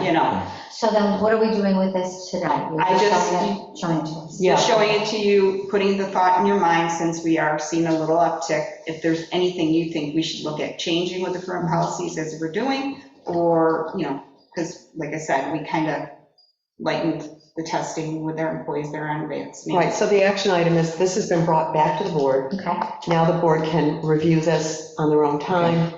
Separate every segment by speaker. Speaker 1: you know.
Speaker 2: So then what are we doing with this tonight? You're
Speaker 1: I just-
Speaker 2: showing it- Showing it to us.
Speaker 1: So Showing it to you, putting the thought in your mind, since we are seeing a little uptick, if there's anything you think we should look at changing with the current policies as we're doing, or, you know, because like I said, we kind of lightened the testing with our employees that are on
Speaker 3: Right,
Speaker 1: vaccine.
Speaker 3: so the action item is, this has been brought back to the board.
Speaker 2: Okay.
Speaker 3: Now the board can review this on their own time.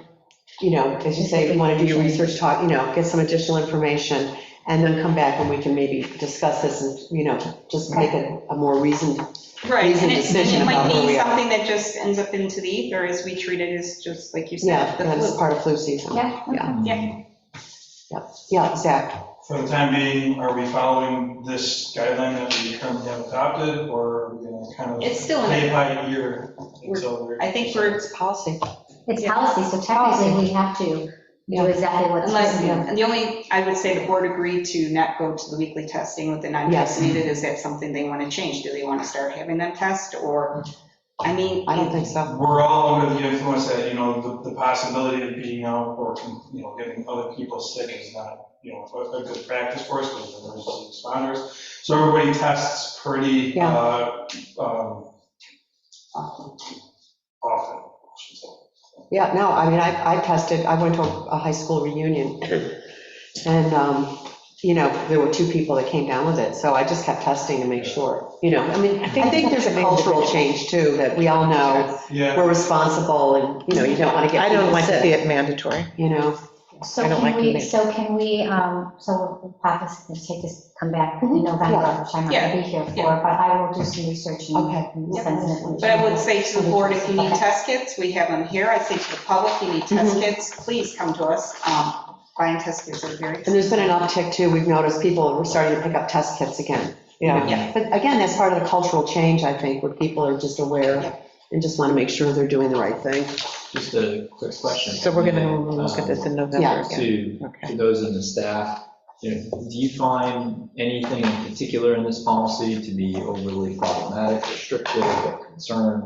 Speaker 3: You know, as you say, if you want to do your research, talk, you know, get some additional information, and then come back and we can maybe discuss this and, you know, just make a a more reasoned,
Speaker 1: Right, and it- and
Speaker 3: decision
Speaker 1: it might
Speaker 3: about where
Speaker 1: be
Speaker 3: we are.
Speaker 1: something that just ends up into the ether as we treat it as just, like you
Speaker 3: yeah,
Speaker 1: said, the
Speaker 3: that's
Speaker 1: flu.
Speaker 3: part of flu season.
Speaker 2: Yeah.
Speaker 3: Yeah.
Speaker 1: Yeah.
Speaker 3: Yeah, exactly.
Speaker 4: For the time being, are we following this guideline that we currently have adopted, or are we going to kind of?
Speaker 1: It's still in
Speaker 4: Pay by ear until we're.
Speaker 1: I think we're,
Speaker 3: It's policy.
Speaker 2: It's
Speaker 1: Yeah.
Speaker 2: policy, so technically we have to
Speaker 3: Yeah.
Speaker 2: do exactly what's.
Speaker 1: Unless, and the only, I would say the board agreed to not go to the weekly testing with the non-vaccinated. Is that something they want to change? Do they want to start having them test or, I mean.
Speaker 3: I don't think so.
Speaker 4: We're all under the influence that, you know, the, the possibility of being out or, you know, getting other people sick is not, you know, a, a good practice for us, because we're emergency responders. So everybody tests pretty,
Speaker 3: Yeah.
Speaker 4: uh, um, often, I should say.
Speaker 3: Yeah, no, I mean, I, I tested, I went to a a high school reunion, and, um, you know, there were two people that came down with it, so I just kept testing to make sure, you know, I mean, I think there's a cultural change too, that we all know,
Speaker 4: Yeah,
Speaker 3: we're responsible, and, you know, you don't want to get
Speaker 5: I don't
Speaker 3: people
Speaker 5: like to see
Speaker 3: sick,
Speaker 5: it mandatory.
Speaker 3: you know,
Speaker 2: So
Speaker 5: I don't
Speaker 2: can
Speaker 5: like
Speaker 2: we,
Speaker 5: meetings.
Speaker 2: so can we, um, so we'll pop this, let's take this, come back in November,
Speaker 3: Yeah.
Speaker 2: which I'm not
Speaker 1: Mm-hmm. Yeah.
Speaker 2: gonna be here for, but
Speaker 1: Yeah.
Speaker 2: I will do some research and.
Speaker 3: Okay.
Speaker 2: and send it information.
Speaker 1: But I would say to the board, if you need
Speaker 2: Okay.
Speaker 1: test kits, we have them here. I say to the public, you need
Speaker 3: Mm-hmm.
Speaker 1: test kits, please come to us. Um, Buying test kits are very.
Speaker 3: and there's been an uptick too, we've noticed people are starting to pick up test kits again, you know.
Speaker 1: Yeah.
Speaker 3: But again, that's part of the cultural change, I think, where people are just aware and just want to make sure they're doing the right thing.
Speaker 6: Just a quick question.
Speaker 5: So we're going to
Speaker 6: Um,
Speaker 5: look at this in
Speaker 3: Yeah.
Speaker 5: November again.
Speaker 6: To,
Speaker 5: Okay.
Speaker 6: to those in the staff, you know, do you find anything in particular in this policy to be overly problematic, restrictive, or concern?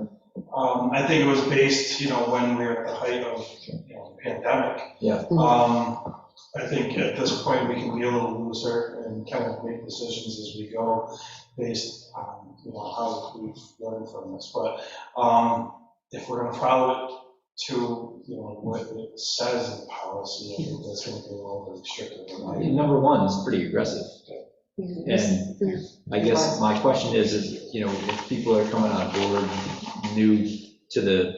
Speaker 4: um, I think it was based, you know, when we were at the height of, you know, the pandemic.
Speaker 6: Yeah,
Speaker 4: Um, I think at this point, we can be a little looser and kind of make decisions as we go based on, you know, how we've learned from this. But um, if we're going to follow it to, you know, what it says in the policy, I think that's going to be a little restrictive. in
Speaker 6: I
Speaker 4: my
Speaker 6: mean,
Speaker 4: view.
Speaker 6: number one is pretty aggressive. And I guess my question is, is, you know, if people are coming on board new to the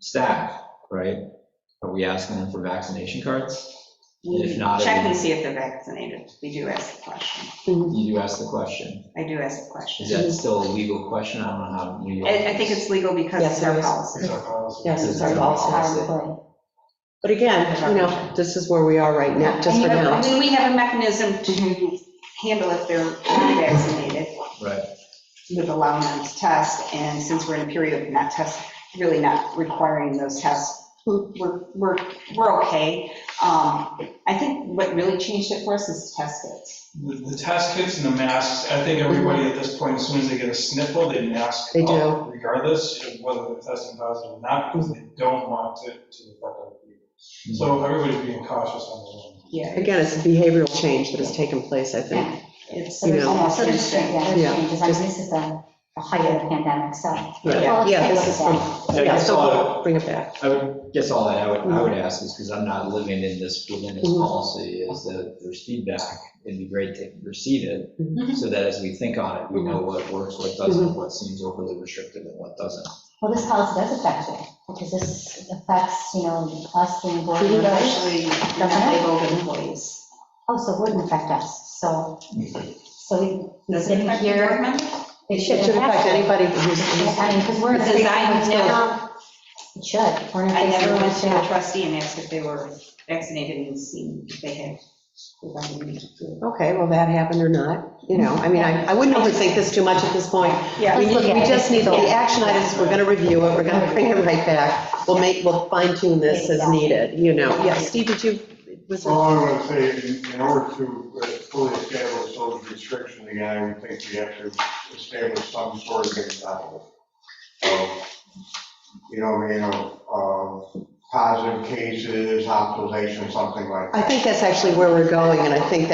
Speaker 6: staff, right? Are we asking them for vaccination cards? If not, it
Speaker 1: Check
Speaker 6: would-
Speaker 1: and see if they're vaccinated. We do ask the question.
Speaker 3: Mm-hmm.
Speaker 6: You do ask the question.
Speaker 1: I do ask the question.
Speaker 6: Is
Speaker 5: Mm-hmm.
Speaker 6: that still a legal question? I don't know how. we-
Speaker 1: I, I think it's legal because
Speaker 3: Yes,
Speaker 1: it's
Speaker 3: it
Speaker 1: our
Speaker 3: is.
Speaker 1: policy.
Speaker 4: It's our policy.
Speaker 3: Yes, it's our
Speaker 2: Our
Speaker 3: policy.
Speaker 2: employee.
Speaker 3: But again, you know, this is where we are right now, just
Speaker 2: And
Speaker 3: for
Speaker 2: you know,
Speaker 3: now.
Speaker 1: I mean, we have a mechanism to handle if they're not vaccinated.
Speaker 6: Right.
Speaker 1: with allowing them to test, and since we're in a period of not test, really not requiring those tests, we're, we're, we're okay. Um, I think what really changed it for us is test kits.
Speaker 4: The the test kits and the masks, I think everybody at this point, as soon as they get a sniffle, they mask.
Speaker 3: They do.
Speaker 4: up Regardless of whether they're testing positive or not, because they don't want to, to affect other people. So everybody's being cautious on their own.
Speaker 1: Yeah,
Speaker 3: Again, it's a behavioral change that has taken place, I think.
Speaker 1: it's
Speaker 2: So there's,
Speaker 3: You know.
Speaker 1: almost
Speaker 2: so there's,
Speaker 1: insane.
Speaker 2: yeah, there's
Speaker 3: Yeah.
Speaker 2: changes, I mean, this is the the height of the pandemic, so.
Speaker 6: Yeah.
Speaker 2: Well, let's
Speaker 3: Yeah,
Speaker 2: take a
Speaker 3: this
Speaker 2: look
Speaker 3: is
Speaker 2: at
Speaker 3: from,
Speaker 2: that.
Speaker 3: yeah, so we'll bring it back.
Speaker 6: I would, guess all that I would, I would ask is, because I'm not living in this, within this
Speaker 3: Mhm.
Speaker 6: policy, is that there's feedback. It'd be great to receive
Speaker 1: Mhm.
Speaker 3: Mm-hmm.
Speaker 6: it, so that as we think on it, we know what works, what doesn't, what seems overly restrictive and what doesn't.
Speaker 2: Well, this policy does affect you, because this affects, you know, us being board members.
Speaker 1: Especially non-labeled employees.
Speaker 2: Oh, so it wouldn't affect us, so, so we
Speaker 1: Does it
Speaker 2: didn't
Speaker 1: affect the board
Speaker 2: hear.
Speaker 1: members?
Speaker 3: It should it should affect anybody who's,
Speaker 2: I mean, because we're.
Speaker 1: Because I never,
Speaker 2: It should. We're in a
Speaker 1: I
Speaker 2: phase
Speaker 1: never
Speaker 2: where
Speaker 1: went to a
Speaker 2: we're-
Speaker 1: trustee and asked if they were vaccinated and seen if they had. COVID-19.
Speaker 3: okay, well, that happened or not, you know, I mean, I, I wouldn't overthink this too much at this point.
Speaker 1: Yeah.
Speaker 3: We
Speaker 2: Let's look
Speaker 3: need-
Speaker 2: at
Speaker 3: we
Speaker 2: it.
Speaker 3: just need the
Speaker 2: Yeah.
Speaker 3: action items, we're gonna review it, we're gonna bring it right back. We'll make, we'll fine tune this as needed, you know. Yeah, Steve, did you, was
Speaker 7: Well,
Speaker 3: there?
Speaker 7: I would say, in- in order to uh, fully establish those restrictions again, I would think we have to establish some sort of example of, you know, you know, uh, positive cases, hospitalization, something like that.
Speaker 3: I think that's actually where we're going, and I think that's